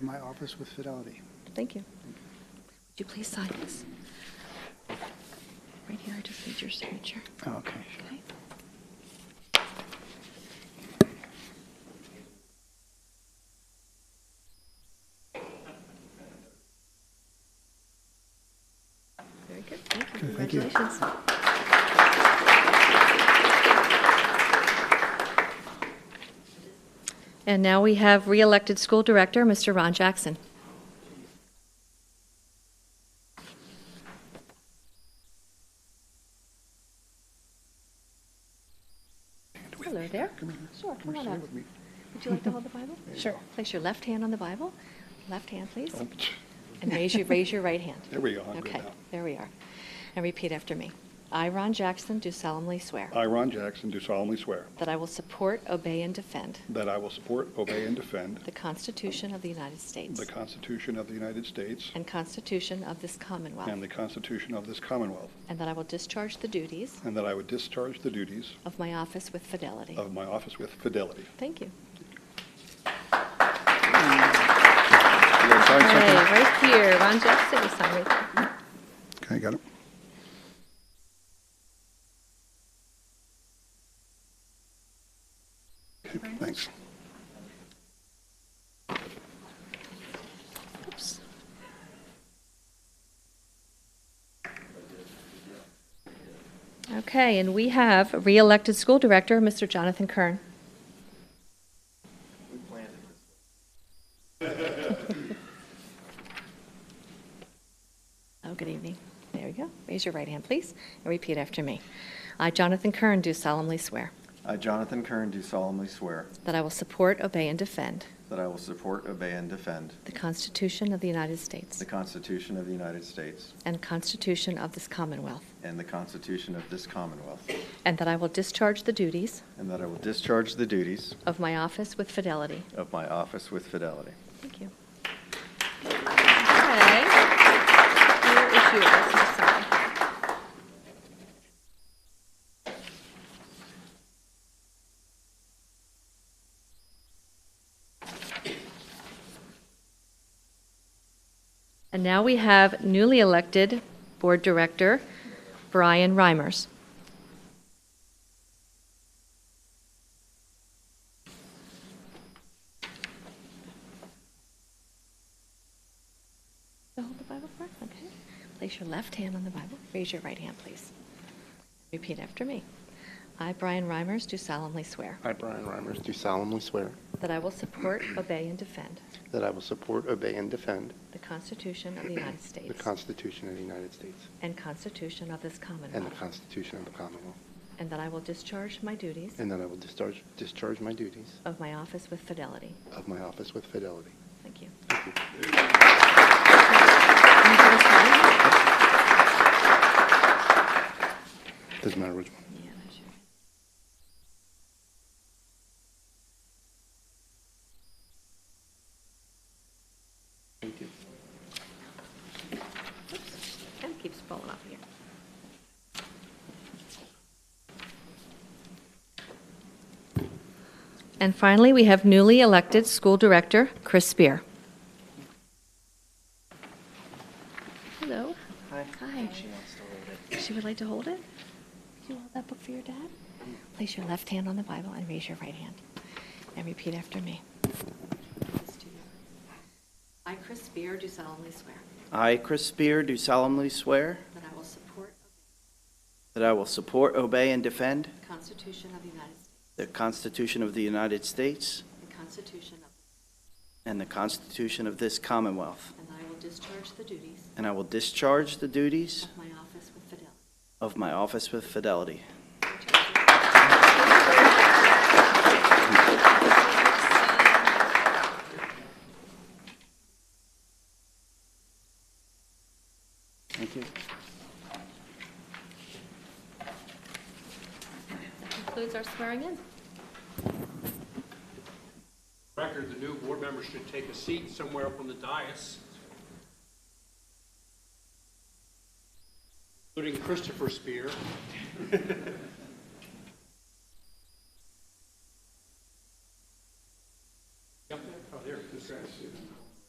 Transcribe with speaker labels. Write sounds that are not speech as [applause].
Speaker 1: my office with fidelity.
Speaker 2: Thank you. Would you please sign this? Right here, I just need your signature,
Speaker 1: Okay.
Speaker 2: okay? Very good, thank you,
Speaker 1: Okay, thank you.
Speaker 2: congratulations. And now we have re-elected school director, Mr. Ron Jackson. Hello there.
Speaker 1: Come here.
Speaker 2: Sure,
Speaker 1: Come
Speaker 2: come
Speaker 1: here,
Speaker 2: on
Speaker 1: sit
Speaker 2: up.
Speaker 1: with me.
Speaker 2: Would you like to hold the
Speaker 1: [laughs]
Speaker 2: Bible?
Speaker 1: There you
Speaker 2: Sure.
Speaker 1: go.
Speaker 2: Place your left hand on the Bible. Left hand, please.
Speaker 1: Oh,
Speaker 2: And raise your, raise your right hand.
Speaker 1: [laughs] There we go. I'm good
Speaker 2: Okay,
Speaker 1: now.
Speaker 2: there we are. And repeat after me. I, Ron Jackson, do solemnly swear
Speaker 1: I, Ron Jackson, do solemnly swear
Speaker 2: that I will support, obey, and defend
Speaker 1: that I will support, obey, and defend
Speaker 2: the Constitution of the United States
Speaker 1: the Constitution of the United States
Speaker 2: and Constitution of this
Speaker 1: and
Speaker 2: Commonwealth,
Speaker 1: the Constitution of this Commonwealth,
Speaker 2: and that I will discharge the duties
Speaker 1: and that I would discharge the duties
Speaker 2: of my office with fidelity.
Speaker 1: of my office with fidelity.
Speaker 2: Thank you.
Speaker 1: You guys sign
Speaker 2: Hey,
Speaker 1: something?
Speaker 2: right here, Ron Jackson, you sign right there.
Speaker 1: Okay, got it. Okay, Thanks.
Speaker 2: Oops. Okay, and we have re-elected school director, Mr. Jonathan Kern. Oh, good evening. There you go. Raise your right hand, please, and repeat after me. I, Jonathan Kern, do solemnly swear
Speaker 3: I, Jonathan Kern, do solemnly swear
Speaker 2: that I will support, obey, and defend
Speaker 3: that I will support, obey, and defend
Speaker 2: the Constitution of the United States
Speaker 3: the Constitution of the United States
Speaker 2: and Constitution of this Commonwealth,
Speaker 3: and the Constitution of this Commonwealth,
Speaker 2: and that I will discharge the duties
Speaker 3: and that I will discharge the duties
Speaker 2: of my office with fidelity.
Speaker 3: of my office with fidelity.
Speaker 2: Thank you. Okay. Here is yours, Ms. Sally. And now we have newly elected Board Director Brian Reimers. So Hold the Bible for us, okay? Place your left hand on the Bible. Raise your right hand, please. Repeat after me. I, Brian Reimers, do solemnly swear
Speaker 4: I, Brian Reimers, do solemnly swear
Speaker 2: that I will support, obey, and defend
Speaker 4: that I will support, obey, and defend
Speaker 2: the Constitution of the United States
Speaker 4: the Constitution of the United States
Speaker 2: and Constitution of this
Speaker 4: and the
Speaker 2: Commonwealth,
Speaker 4: Constitution of the Commonwealth,
Speaker 2: and that I will discharge my duties
Speaker 4: and that I will discharge, discharge my duties
Speaker 2: of my office with fidelity.
Speaker 4: of my office with fidelity.
Speaker 2: Thank you.
Speaker 4: Thank you.
Speaker 2: Yeah,
Speaker 4: Doesn't matter which one.
Speaker 2: that's yours.
Speaker 4: Thank you.
Speaker 2: Oops, Kind of keeps falling off here. And finally, we have newly elected school director, Chris Spear. Hello.
Speaker 3: Hi.
Speaker 2: Hi. She would like to hold it? You hold that book for your dad? Place your left hand on the Bible and raise your right hand. And repeat after me. I, Chris Spear, do solemnly swear
Speaker 5: I, Chris Spear, do solemnly swear
Speaker 2: that I will support
Speaker 5: that I will support, obey, and defend
Speaker 2: the Constitution of the United States
Speaker 5: the Constitution of the United States
Speaker 2: and Constitution of,
Speaker 5: and the Constitution of this Commonwealth,
Speaker 2: and that I will discharge the duties
Speaker 5: and I will discharge the duties
Speaker 2: of my office with fidelity.
Speaker 5: of my office with fidelity. Thank you.
Speaker 2: That concludes our swearing in.
Speaker 6: record, the new board member should take a seat somewhere up on the dais, [laughs] including Christopher Spear. Oh,